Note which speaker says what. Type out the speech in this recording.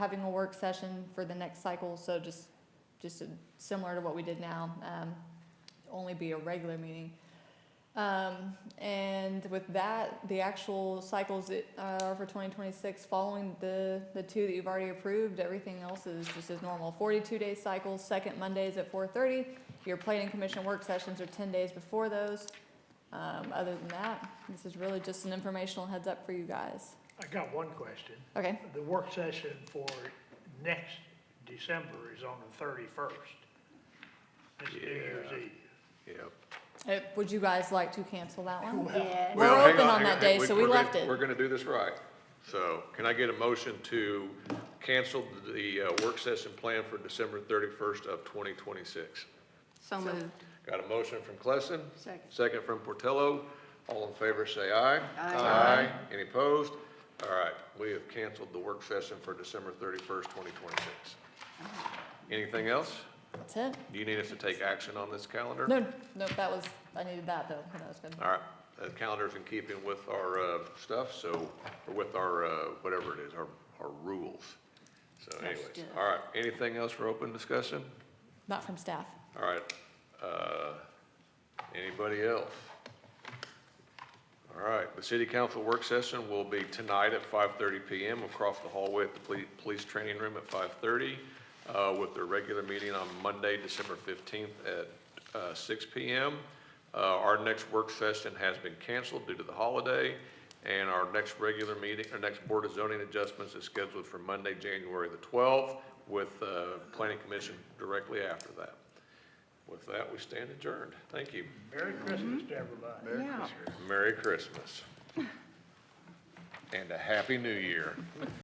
Speaker 1: having a work session for the next cycle, so just, just similar to what we did now, um, only be a regular meeting. Um, and with that, the actual cycles that are for twenty twenty-six, following the, the two that you've already approved, everything else is just as normal. Forty-two day cycles, second Mondays at four thirty, your planning commission work sessions are ten days before those. Um, other than that, this is really just an informational heads up for you guys.
Speaker 2: I got one question.
Speaker 1: Okay,
Speaker 2: The work session for next December is on the thirty-first. It's New Year's
Speaker 3: Yeah.
Speaker 2: Eve.
Speaker 3: Yep.
Speaker 1: Uh, would you guys like to cancel that one?
Speaker 4: Yeah.
Speaker 1: We're
Speaker 3: Well, hang
Speaker 1: open on
Speaker 3: hang
Speaker 1: that day,
Speaker 3: Hey,
Speaker 1: so we
Speaker 3: we're gonna-
Speaker 1: left it.
Speaker 3: We're gonna do this right. So can I get a motion to cancel the uh, work session plan for December thirty-first of twenty twenty-six?
Speaker 4: So moved.
Speaker 3: Got a motion from Klessen?
Speaker 4: Second.
Speaker 3: Second from Portillo. All in favor, say aye. Aye. Any opposed? All right, we have canceled the work session for December thirty-first, twenty twenty-six. Anything else?
Speaker 1: That's it?
Speaker 3: Do you need us to take action on this calendar?
Speaker 1: No, no, that was, I needed that though, that was good.
Speaker 3: All right, the calendar's in keeping with our uh, stuff, so, or with our, uh, whatever it is, our, our rules. So anyways,
Speaker 4: do it.
Speaker 3: all right, anything else for open discussion?
Speaker 1: Not from staff.
Speaker 3: All right, uh, anybody else? All right, the city council work session will be tonight at 5:30 PM across the hallway at the poli- police training room at 5:30, uh, with their regular meeting on Monday, December 15th at uh, 6 PM. Uh, Our next work session has been canceled due to the holiday, and our next regular meeting, our next Board of Zoning Adjustments is scheduled for Monday, January the 12th, with uh, Planning Commission directly after that. With that, we stand adjourned. Thank you.
Speaker 2: Merry Christmas to everybody.
Speaker 4: Yeah.
Speaker 3: Merry Christmas. And a Happy New Year.